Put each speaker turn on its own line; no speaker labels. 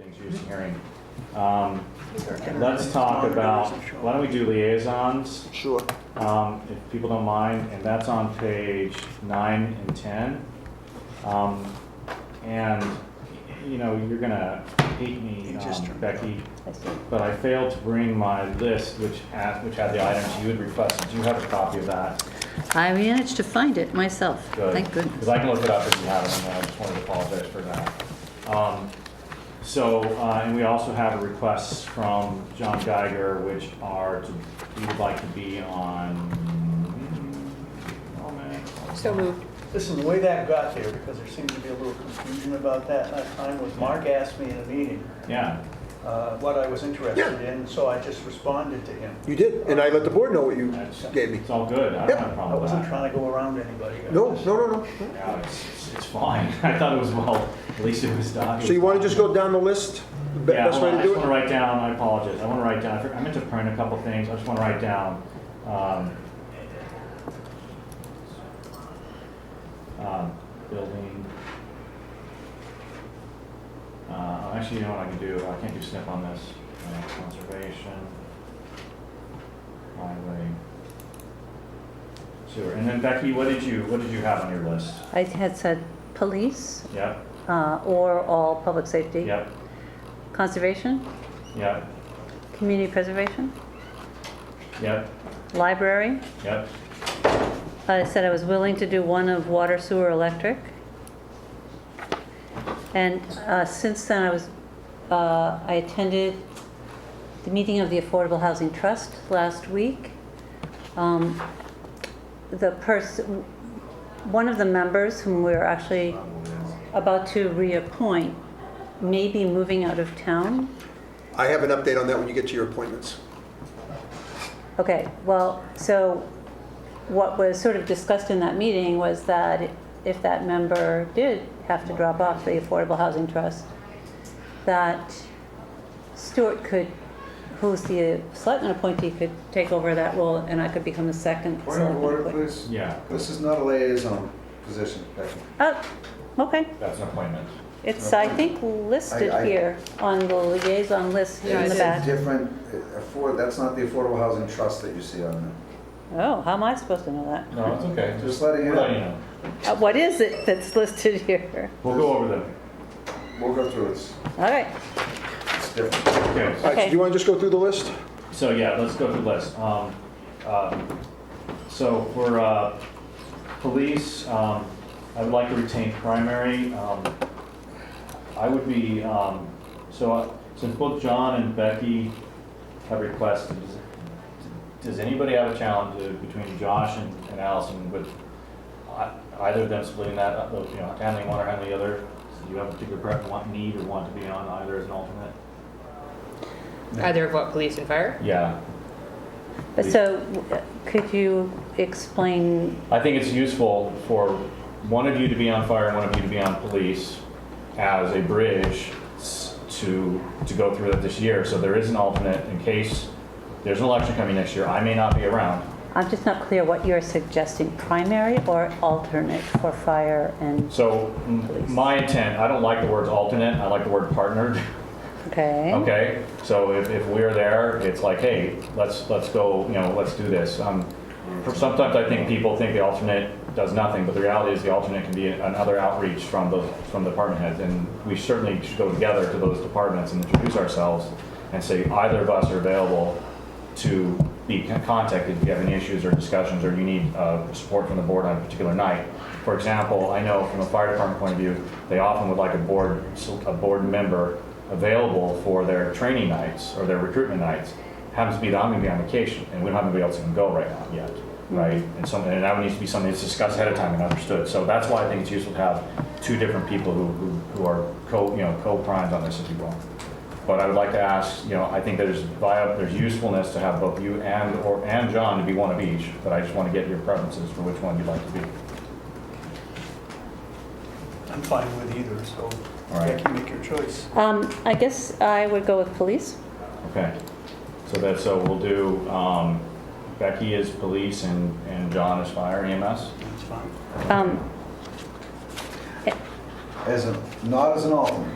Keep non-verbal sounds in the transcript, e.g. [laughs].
introduce a hearing. Um, Let's talk about, why don't we do liaisons,
Sure.
um, if people don't mind, and that's on page nine and 10. Um, And, you know, you're gonna hate me,
You just
um,
turned it
Becky,
I see.
but I failed to bring my list, which had, which had the items you had requested. Do you have a copy of that?
I managed to find it myself, thank
Because
goodness.
I can look it up if you have it, and I just wanted to apologize for that. Um, So, uh, and we also have requests from John Geiger, which are, to- he would like to be on, oh, man.
So moved.
Listen, the way that got there, because there seemed to be a little confusion about that last time, was Mark asked me in a meeting
Yeah,
uh, what I was interested in, so I just responded to him.
You did, and I let the board know what you
that's,
gave me.
it's all good, I don't have a
I
problem with
wasn't
that.
trying to go around anybody. I
No,
was-
no, no, no.
Yeah, it's, it's- it's fine, [laughs] I thought it was well, at least it was done.
So you want to just go down the list? The be-
Yeah,
Best
hold
way
on,
to
I just
do
want to
it?
write down, I apologize, I want to write down, I for- I meant to print a couple things, I just want to write down. um, um, Building. Uh, Actually, you know what I can do, I can't do SNP on this, Uh, conservation, highway, sewer. And then Becky, what did you, what did you have on your list?
I had said police
Yep,
uh, or all public safety.
yep,
Conservation,
yep,
community preservation,
yep,
library.
yep,
I said I was willing to do one of water, sewer, electric. And uh, since then, I was, uh, I attended the meeting of the Affordable Housing Trust last week. Um, The person, one of the members whom we're actually about to reappoint may be moving out of town.
I have an update on that when you get to your appointments.
Okay, well, so what was sort of discussed in that meeting was that if that member did have to drop off the Affordable Housing Trust, that Stuart could, who's the selectman appointee, could take over that role, and I could become the second
Point of
selectman
order,
appointee.
please.
yeah,
This is not a liaison position, Becky.
Oh, okay,
that's an appointment.
it's, I think, listed
I- I-
here on the liaison list
Yeah,
in
it
the
is.
back.
Different, uh, afford, that's not the Affordable Housing Trust that you see on
Oh, how am I supposed to know that?
No, it's okay.
there. Just letting you
We'll let you
know.
know.
Uh, What is it that's listed here?
We'll go over them.
We'll go through it.
All right,
It's different.
Okay,
All right, so
Okay.
do you want to just go through the list?
so yeah, let's go through the list. Um, uh, So for uh, police, um, I would like to retain primary. Um, I would be, um, so uh, since both John and Becky have requested, does- does anybody have a challenge uh, between Josh and and Allison with I- either of them splitting that up, you know, handling one or handling the other? Do you have a particular pref- want, need or want to be on either as an alternate?
Either of what, police and fire?
Yeah,
But so, uh, could you explain
I think it's useful for one of you to be on fire and one of you to be on police as a bridge s- to, to go through it this year. So there is an alternate in case there's an election coming next year. I may not be around.
I'm just not clear what you're suggesting, primary or alternate for fire and,
So m- my intent, I don't like the words alternate, I like the word partnered. [laughs]
okay?
Okay, so if, if we're there, it's like, hey, let's, let's go, you know, let's do this. Um, for- Sometimes I think people think the alternate does nothing, but the reality is the alternate can be another outreach from those, from the department heads. And we certainly should go together to those departments and introduce ourselves and say either of us are available to be con- contacted if you have any issues or discussions or you need uh, support from the board on a particular night. For example, I know from a fire department point of view, they often would like a board, a board member available for their training nights or their recruitment nights. Happens to be that I'm going to be on vacation and we don't have anybody else who can go right now yet, right? And some, and that would need to be something that's discussed ahead of time and understood. So that's why I think it's useful to have two different people who, who- who are co, you know, co-primed on this, if you will. But I would like to ask, you know, I think there's via, there's usefulness to have both you and, or, and John to be one of each, but I just want to get your preferences for which one you'd like to be.
I'm fine with either, so
All right.
Becky, make your choice.
Um, I guess I would go with police.
Okay. So that, so we'll do, um, Becky is police and, and John is fire E EMS?
That's fine.
Um,
As a, not as an alternate.